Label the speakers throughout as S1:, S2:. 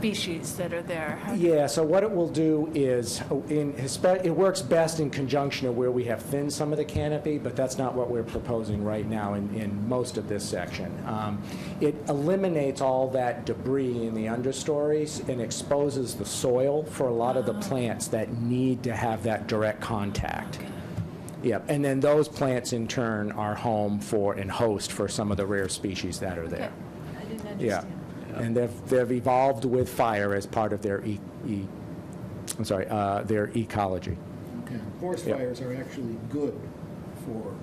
S1: species that are there. huh?
S2: Yeah, so what it will do is, oh, in, Hispa- it works best in conjunction of where we have thinned some of the canopy, but that's not what we're proposing right now in, in most of this section. Um, It eliminates all that debris in the understories and exposes the soil for a lot of the plants that need to have that direct contact. Yep, and then those plants in turn are home for and host for some of the rare species that are there.
S1: I didn't
S2: Yeah,
S1: understand.
S2: and they've, they've evolved with fire as part of their e, e, I'm sorry, uh, their ecology.
S3: Forest
S2: Yeah.
S3: fires are actually good for,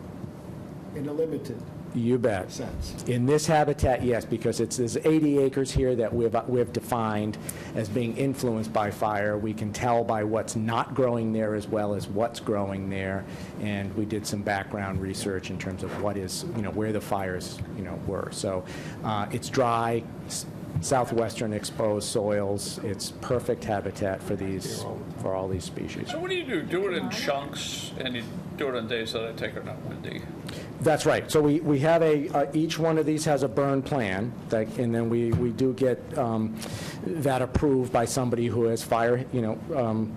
S3: in a limited
S2: You bet.
S3: sense.
S2: In this habitat, yes, because it's, there's 80 acres here that we've, we've defined as being influenced by fire. We can tell by what's not growing there as well as what's growing there. And we did some background research in terms of what is, you know, where the fires, you know, were. So uh, it's dry, s- southwestern exposed soils. It's perfect habitat for these, for all these species.
S4: So what do you do? Do it in chunks, and you do it on days that I take are not windy.
S2: That's right. So we, we have a, uh, each one of these has a burn plan, that- and then we, we do get um, that approved by somebody who has fire, you know, um,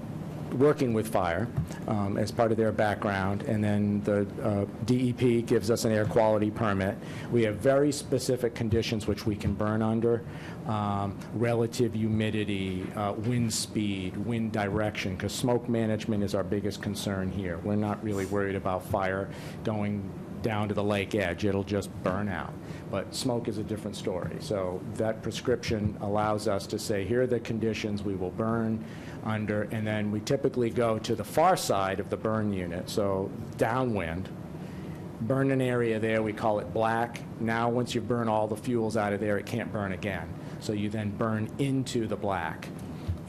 S2: working with fire um, as part of their background, and then the uh, DEP gives us an air quality permit. We have very specific conditions which we can burn under, um, relative humidity, uh, wind speed, wind direction, because smoke management is our biggest concern here. We're not really worried about fire going down to the lake edge, it'll just burn out. But smoke is a different story. So that prescription allows us to say, here are the conditions we will burn under, and then we typically go to the far side of the burn unit, so downwind, burn an area there, we call it black. Now, once you burn all the fuels out of there, it can't burn again. So you then burn into the black.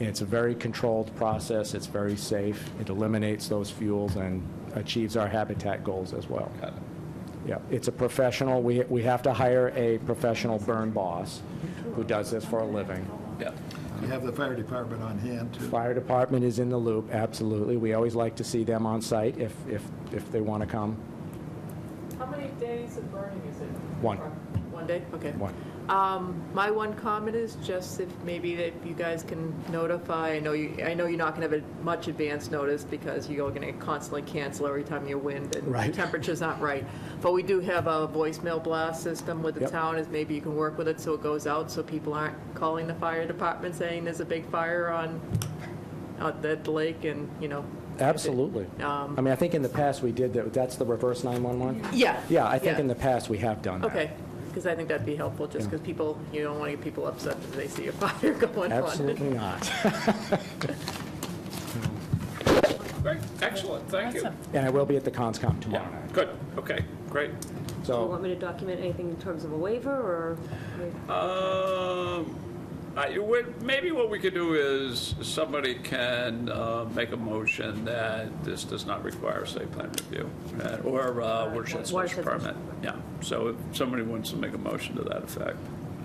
S2: It's a very controlled process, it's very safe, it eliminates those fuels and achieves our habitat goals as well.
S4: Got it.
S2: Yeah, it's a professional, we, we have to hire a professional burn boss who does this for a living.
S4: Yeah.
S3: You have the fire department on hand to
S2: Fire department is in the loop, absolutely. We always like to see them on site if, if, if they want to come.
S5: How many days of burning is it?
S2: One.
S5: One day, okay.
S2: One.
S5: Um, My one comment is just if maybe that you guys can notify, I know you, I know you're not going to have a much advance notice because you're going to constantly cancel every time you wind and
S2: Right.
S5: the temperature's not right. But we do have a voicemail blast system with the
S2: Yep.
S5: town, is maybe you can work with it so it goes out so people aren't calling the fire department saying there's a big fire on, out at the lake and, you know. if it-
S2: Absolutely. I
S5: Um,
S2: mean, I think in the past we did that, that's the reverse 911?
S5: Yeah.
S2: Yeah, I think in the past we have done that.
S5: Okay, because I think that'd be helpful, just
S2: Yeah.
S5: because people, you don't want to get people upset because they see a fire going on.
S2: Absolutely not.
S4: Great. Excellent. Thank you.
S1: Awesome.
S2: And I will be at the ConsCom tomorrow
S4: Yeah.
S2: night.
S4: Good. Okay. Great.
S6: Do you want
S2: So,
S6: me to document anything in terms of a waiver, or?
S4: Um, I, what- maybe what we could do is somebody can uh, make a motion that this does not require a site plan review uh, or uh, watershed special
S6: Watershed special
S4: permit. Yeah. So if somebody wants to make a motion to that effect.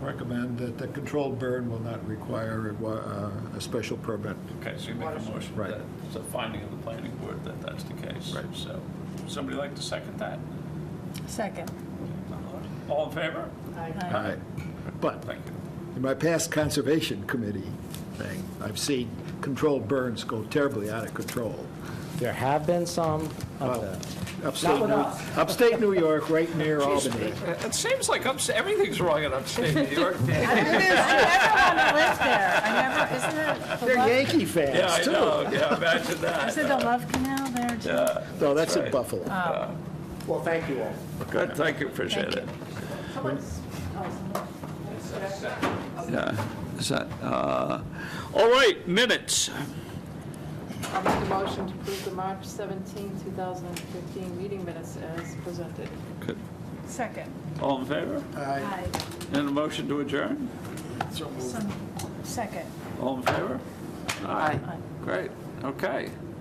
S3: recommend that the controlled burn will not require a wa- uh, a special permit.
S4: Okay, so you make a motion
S3: Right.
S4: that it's a finding of the planning board that that's the case. Right. So, somebody like to second that?
S1: Second.
S4: All in favor?
S3: All right. But
S4: Thank you.
S3: in my past conservation committee thing, I've seen controlled burns go terribly out of control.
S2: there have been some of
S3: Well,
S2: the...
S3: Upstate
S2: with
S3: New-
S2: us.
S3: upstate New York, right near Albany.
S4: It seems like upstate, everything's wrong in upstate New York. Yeah,
S1: I never want to live there. I never, isn't it? the
S3: They're
S1: Love-
S3: Yankee fans,
S4: I
S3: too.
S4: know, yeah, imagine
S1: Is
S4: that.
S1: it the Love Canal there too?
S3: No, that's in
S4: right.
S3: Buffalo.
S2: Well, thank you all.
S4: Good, thank you, appreciate it. Yeah, is that, uh, all right, minutes.
S5: I'll make a motion to approve the March 17, 2015 meeting minutes as presented.
S4: Good.
S1: Second.
S4: All in favor?
S3: Aye.
S4: And a motion to adjourn?
S1: Some- Second.
S4: All in favor? Aye. Great, okay.